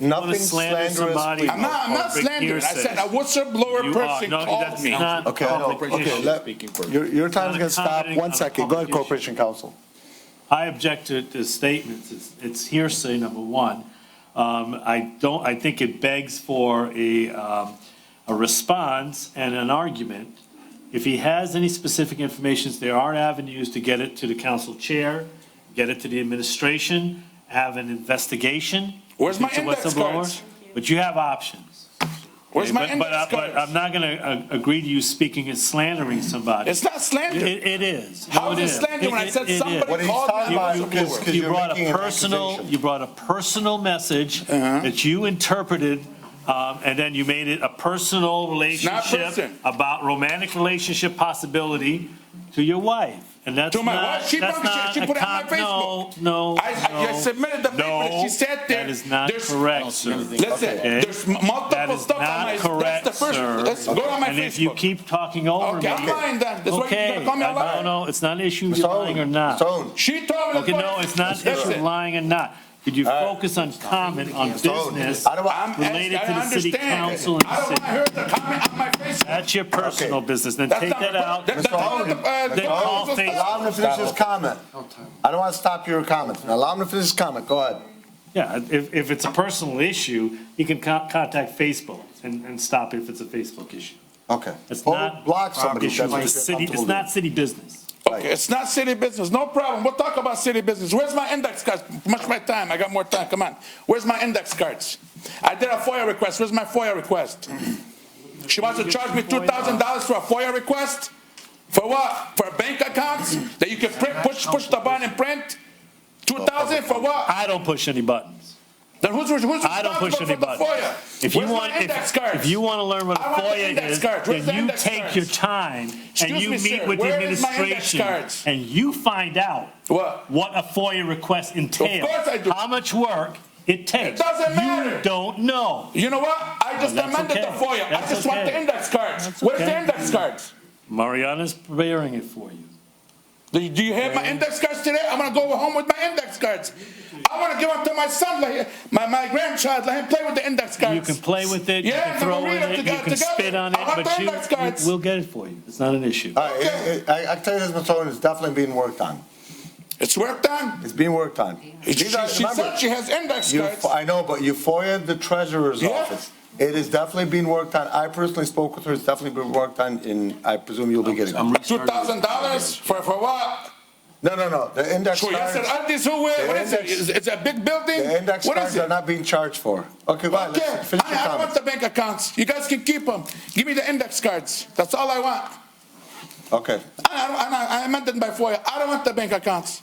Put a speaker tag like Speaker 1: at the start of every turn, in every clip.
Speaker 1: nothing
Speaker 2: slander
Speaker 1: slanderous.
Speaker 2: somebody-
Speaker 1: we-
Speaker 2: I'm
Speaker 3: I'm not, I'm
Speaker 2: Or
Speaker 3: not
Speaker 2: big
Speaker 3: slandering. I said
Speaker 2: hearsay.
Speaker 3: a whistleblower
Speaker 2: You are,
Speaker 3: person
Speaker 2: no,
Speaker 3: called
Speaker 2: that's
Speaker 3: me.
Speaker 2: not.
Speaker 1: Okay, I know.
Speaker 2: corporation.
Speaker 1: okay, let, your, your time's gonna stop,
Speaker 2: Commenting
Speaker 1: one
Speaker 2: on
Speaker 1: second, go ahead,
Speaker 2: public issue.
Speaker 1: Corporation Counsel.
Speaker 2: I object to, to statements. It's, it's hearsay, number one. Um, I don't, I think it begs for a, um, a response and an argument. If he has any specific information, there are avenues to get it to the council chair, get it to the administration, have an investigation.
Speaker 3: Where's my
Speaker 2: It's a
Speaker 3: index
Speaker 2: whistleblower,
Speaker 3: cards?
Speaker 2: But you have options.
Speaker 3: Where's my
Speaker 2: But- but I-
Speaker 3: index
Speaker 2: But I'm
Speaker 3: cards?
Speaker 2: not gonna uh, agree to you speaking and slandering somebody.
Speaker 3: It's not slander.
Speaker 2: It, it is. No,
Speaker 3: How is it
Speaker 2: is.
Speaker 3: slander when I said
Speaker 2: It- it- it
Speaker 3: somebody
Speaker 2: is.
Speaker 1: What he's
Speaker 3: called
Speaker 1: talking
Speaker 3: me a
Speaker 1: about is-
Speaker 3: whistleblower?
Speaker 1: is-
Speaker 2: You
Speaker 1: you're
Speaker 2: brought
Speaker 1: making
Speaker 2: a
Speaker 1: an
Speaker 2: personal,
Speaker 1: accusation.
Speaker 2: you brought a personal message
Speaker 3: Uh-huh.
Speaker 2: that you interpreted, um, and then you made it a personal relationship
Speaker 3: person.
Speaker 2: about romantic relationship possibility to your wife. And that's
Speaker 3: To my
Speaker 2: not,
Speaker 3: wife? She
Speaker 2: that's
Speaker 3: probably
Speaker 2: not
Speaker 3: said- she
Speaker 2: a
Speaker 3: put it on
Speaker 2: com-
Speaker 3: my Facebook.
Speaker 2: No, no,
Speaker 3: I- I- I
Speaker 2: no,
Speaker 3: submitted the paper that
Speaker 2: no,
Speaker 3: she sat there.
Speaker 2: That is not
Speaker 3: There's-
Speaker 2: correct, sir.
Speaker 3: Listen,
Speaker 2: Okay.
Speaker 3: there's m-
Speaker 2: That
Speaker 3: multiple
Speaker 2: is
Speaker 3: stuff on
Speaker 2: not
Speaker 3: my,
Speaker 2: correct,
Speaker 3: that's the first,
Speaker 2: sir.
Speaker 3: let's go on my
Speaker 2: And if you
Speaker 3: Facebook.
Speaker 2: keep talking over me.
Speaker 3: Okay, I'm lying then. That's why you're
Speaker 2: Okay,
Speaker 3: gonna call me a
Speaker 2: I-
Speaker 3: liar.
Speaker 2: No, no, it's not an issue
Speaker 1: Mr.
Speaker 2: you're lying
Speaker 1: Owen,
Speaker 2: or not.
Speaker 1: Mr. Owen,
Speaker 3: She told me.
Speaker 2: Okay,
Speaker 3: that's
Speaker 2: no,
Speaker 3: why-
Speaker 2: it's not if you're
Speaker 3: Listen,
Speaker 2: lying or not. Could you focus on comment on
Speaker 1: Mr. Owen,
Speaker 2: business?
Speaker 1: I don't want-
Speaker 3: I'm asking-
Speaker 2: related to
Speaker 3: I
Speaker 2: the city
Speaker 3: understand.
Speaker 2: council and
Speaker 3: I don't want
Speaker 2: city.
Speaker 3: her to comment on my Facebook.
Speaker 2: That's your personal
Speaker 1: Okay.
Speaker 2: business, then
Speaker 3: That's
Speaker 2: take
Speaker 3: not
Speaker 2: that
Speaker 3: my-
Speaker 2: out.
Speaker 3: that-
Speaker 1: Mr. Owen,
Speaker 3: That's not
Speaker 1: Mr.
Speaker 3: the- uh,
Speaker 1: Owen,
Speaker 3: the-
Speaker 1: allow him to finish his comment. I don't wanna stop your comment, allow him to finish his comment, go ahead.
Speaker 2: Yeah, if, if it's a personal issue, you can co- contact Facebook and, and stop if it's a Facebook issue.
Speaker 1: Okay.
Speaker 2: It's
Speaker 1: Or
Speaker 2: not-
Speaker 1: Block somebody.
Speaker 2: Issue
Speaker 1: that's
Speaker 2: with
Speaker 1: what
Speaker 2: the
Speaker 1: you're
Speaker 2: city, it's
Speaker 1: comfortable
Speaker 2: not city business.
Speaker 3: Okay, it's not city business, no problem, we'll talk about city business. Where's my index cards? Much my time, I got more time, come on. Where's my index cards? I did a FOIA request, where's my FOIA request? She wants to charge me two thousand dollars for a FOIA request? For what? For bank accounts that you can print, push, push the button and print? Two thousand for what?
Speaker 2: I don't push any buttons.
Speaker 3: Then who's, who's
Speaker 2: I don't
Speaker 3: responsible
Speaker 2: push
Speaker 3: for
Speaker 2: any
Speaker 3: the
Speaker 2: buttons.
Speaker 3: FOIA?
Speaker 2: If you
Speaker 3: Where's
Speaker 2: want,
Speaker 3: my index
Speaker 2: if,
Speaker 3: cards?
Speaker 2: if you want to learn what a
Speaker 3: I want the
Speaker 2: FOIA
Speaker 3: index
Speaker 2: is,
Speaker 3: cards. Where's the
Speaker 2: then you
Speaker 3: index
Speaker 2: take
Speaker 3: cards?
Speaker 2: your time and
Speaker 3: Excuse
Speaker 2: you
Speaker 3: me,
Speaker 2: meet
Speaker 3: sir.
Speaker 2: with the
Speaker 3: Where is my index
Speaker 2: administration
Speaker 3: cards?
Speaker 2: and you find out
Speaker 3: What?
Speaker 2: what a FOIA request entails.
Speaker 3: course I do.
Speaker 2: How much work it takes.
Speaker 3: doesn't matter.
Speaker 2: You don't know.
Speaker 3: You know what? I just
Speaker 2: That's
Speaker 3: amended the
Speaker 2: okay.
Speaker 3: FOIA, I
Speaker 2: That's
Speaker 3: just want
Speaker 2: okay.
Speaker 3: the index cards.
Speaker 2: That's
Speaker 3: Where's the
Speaker 2: okay.
Speaker 3: index cards?
Speaker 2: Mariana's preparing it for you.
Speaker 3: Do you, do you have my index cards today? I'm gonna go home with my index cards. I wanna give them to my son, like, my, my grandchild, let him play with the index cards.
Speaker 2: You can play with it, you
Speaker 3: Yeah,
Speaker 2: can
Speaker 3: and
Speaker 2: throw
Speaker 3: we'll read
Speaker 2: in
Speaker 3: them
Speaker 2: it, you
Speaker 3: together-
Speaker 2: can spit
Speaker 3: together.
Speaker 2: on it,
Speaker 3: I want
Speaker 2: but
Speaker 3: the
Speaker 2: you,
Speaker 3: index cards.
Speaker 2: you- we'll get it for you. It's not an issue.
Speaker 1: All right, it- it- I, I can tell you this, Mr. Owen, it's definitely being worked on.
Speaker 3: It's work done.
Speaker 1: It's being worked on.
Speaker 3: She, she
Speaker 1: These are-
Speaker 3: she
Speaker 1: remember,
Speaker 3: said she has index
Speaker 1: you-
Speaker 3: cards.
Speaker 1: I know, but you FOIA'd the treasurer's
Speaker 3: Yeah.
Speaker 1: office. It is definitely being worked on. I personally spoke with her. It's definitely been worked on, and I presume you'll be getting it.
Speaker 3: Two thousand dollars for, for what?
Speaker 1: No, no, no, the index
Speaker 3: For yes and
Speaker 1: cards,
Speaker 3: undies, who, will- what is it?
Speaker 1: index-
Speaker 3: Is, is it a big building?
Speaker 1: the index
Speaker 3: What is
Speaker 1: cards
Speaker 3: it?
Speaker 1: are not being charged for. Okay, go ahead,
Speaker 3: Okay, I,
Speaker 1: let's finish your
Speaker 3: I don't want
Speaker 1: comment.
Speaker 3: the bank accounts. You guys can keep them. Give me the index cards. That's all I want.
Speaker 1: Okay,
Speaker 3: I, I, don't- I, I amended my FOIA. I don't want the bank accounts.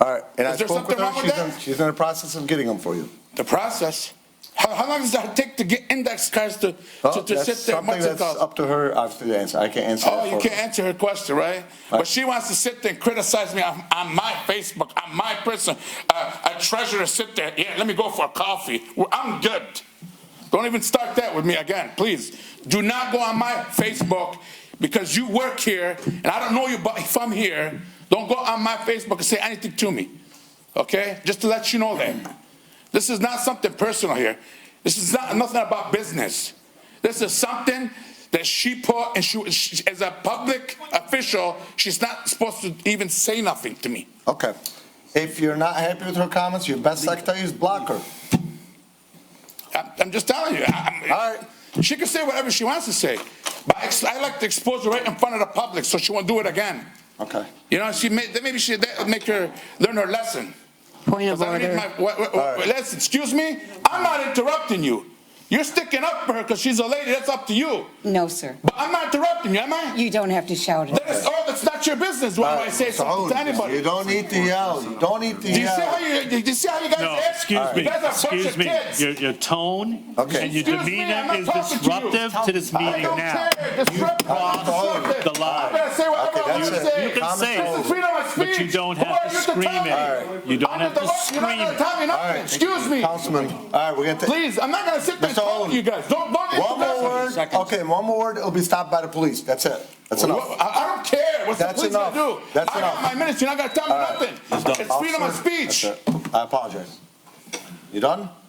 Speaker 1: all right, and I
Speaker 3: Is there
Speaker 1: spoke with
Speaker 3: something
Speaker 1: her.
Speaker 3: wrong with
Speaker 1: She's
Speaker 3: that?
Speaker 1: in, she's in the process of getting them for you.
Speaker 3: The process. How, how long does that take to get index cards to,
Speaker 1: Well,
Speaker 3: to, to
Speaker 1: Oh, that's
Speaker 3: sit there?
Speaker 1: something
Speaker 3: What's it
Speaker 1: that's
Speaker 3: called?
Speaker 1: up to her, obviously, to answer. I can't answer that
Speaker 3: Oh, you
Speaker 1: for her.
Speaker 3: can't answer her question, right? But she wants to sit there and criticize me on, on my Facebook, on my person. Uh, a treasurer sit there. Yeah, let me go for a coffee. Well, I'm good. Don't even start that with me again, please. Do not go on my Facebook because you work here and I don't know you, but if I'm here, don't go on my Facebook and say anything to me. Okay? Just to let you know that. This is not something personal here. This is not nothing about business. This is something that she put, and she, she as a public official, she's not supposed to even say nothing to me.
Speaker 1: Okay. If you're not happy with her comments, your best secretary is block her.
Speaker 3: I'm, I'm just telling you. I- I'm-
Speaker 1: All right.
Speaker 3: She can say whatever she wants to say, but I, ex- I like to expose her right in front of the public, so she won't do it again.
Speaker 1: Okay.
Speaker 3: You know, she may, maybe she that would make her learn her lesson.
Speaker 4: Point of
Speaker 3: 'Cause I need
Speaker 4: order.
Speaker 3: my- wha- wha-
Speaker 1: All right.
Speaker 3: Listen, excuse me, I'm not interrupting you. You're sticking up for her because she's a lady. That's up to you.
Speaker 4: No, sir.
Speaker 3: But I'm not interrupting you, am I?
Speaker 4: You don't have to shout it.
Speaker 3: That is, oh, that's not your business. Why would I say
Speaker 1: So,
Speaker 3: something to anybody?
Speaker 1: Uh, You don't need to yell. You don't need to
Speaker 3: do you see how
Speaker 1: yell.
Speaker 3: you, do you see how you guys
Speaker 2: No,
Speaker 3: act?
Speaker 2: excuse me,
Speaker 3: You guys are a bunch
Speaker 2: excuse
Speaker 3: of
Speaker 2: me.
Speaker 3: kids.
Speaker 2: Your, your tone
Speaker 1: Okay.
Speaker 2: and your
Speaker 3: Excuse me, I'm
Speaker 2: demeanor
Speaker 3: not
Speaker 2: is
Speaker 3: talking to you.
Speaker 2: disruptive to this
Speaker 3: I
Speaker 2: meeting
Speaker 3: don't
Speaker 2: now.
Speaker 3: care. This rep-
Speaker 1: crossed
Speaker 3: this
Speaker 2: the line.
Speaker 3: I'm gonna say whatever
Speaker 1: Okay,
Speaker 3: I want to
Speaker 1: that's it.
Speaker 3: say.
Speaker 2: You can say
Speaker 3: This is
Speaker 2: it,
Speaker 3: freedom of speech.
Speaker 2: but you don't
Speaker 3: Who
Speaker 2: have
Speaker 3: are
Speaker 2: to
Speaker 3: you
Speaker 2: scream
Speaker 3: tell me?
Speaker 2: it. All right. You don't
Speaker 3: Under
Speaker 2: have
Speaker 3: the
Speaker 2: to
Speaker 3: law, You're not
Speaker 2: scream
Speaker 3: gonna
Speaker 2: it.
Speaker 3: tell me
Speaker 1: All right.
Speaker 3: nothing. Excuse me.
Speaker 1: Councilman, all right, we're going to.
Speaker 3: Please, I'm not gonna sit there and
Speaker 1: Mr.
Speaker 3: talk
Speaker 1: Owen.
Speaker 3: to you guys. Don't, don't.
Speaker 1: One more
Speaker 3: interrupt me.
Speaker 1: word. Okay, one more word, it'll be stopped by the police. That's it. That's
Speaker 3: Well,
Speaker 1: enough.
Speaker 3: I, I don't care. What's
Speaker 1: That's
Speaker 3: the police
Speaker 1: enough.
Speaker 3: gonna do?
Speaker 1: That's
Speaker 3: I
Speaker 1: enough.
Speaker 3: got my minutes. You're not gonna tell me
Speaker 1: All right.
Speaker 3: nothing. It's freedom of
Speaker 1: Officer,
Speaker 3: speech.
Speaker 1: that's it. I apologize. You done?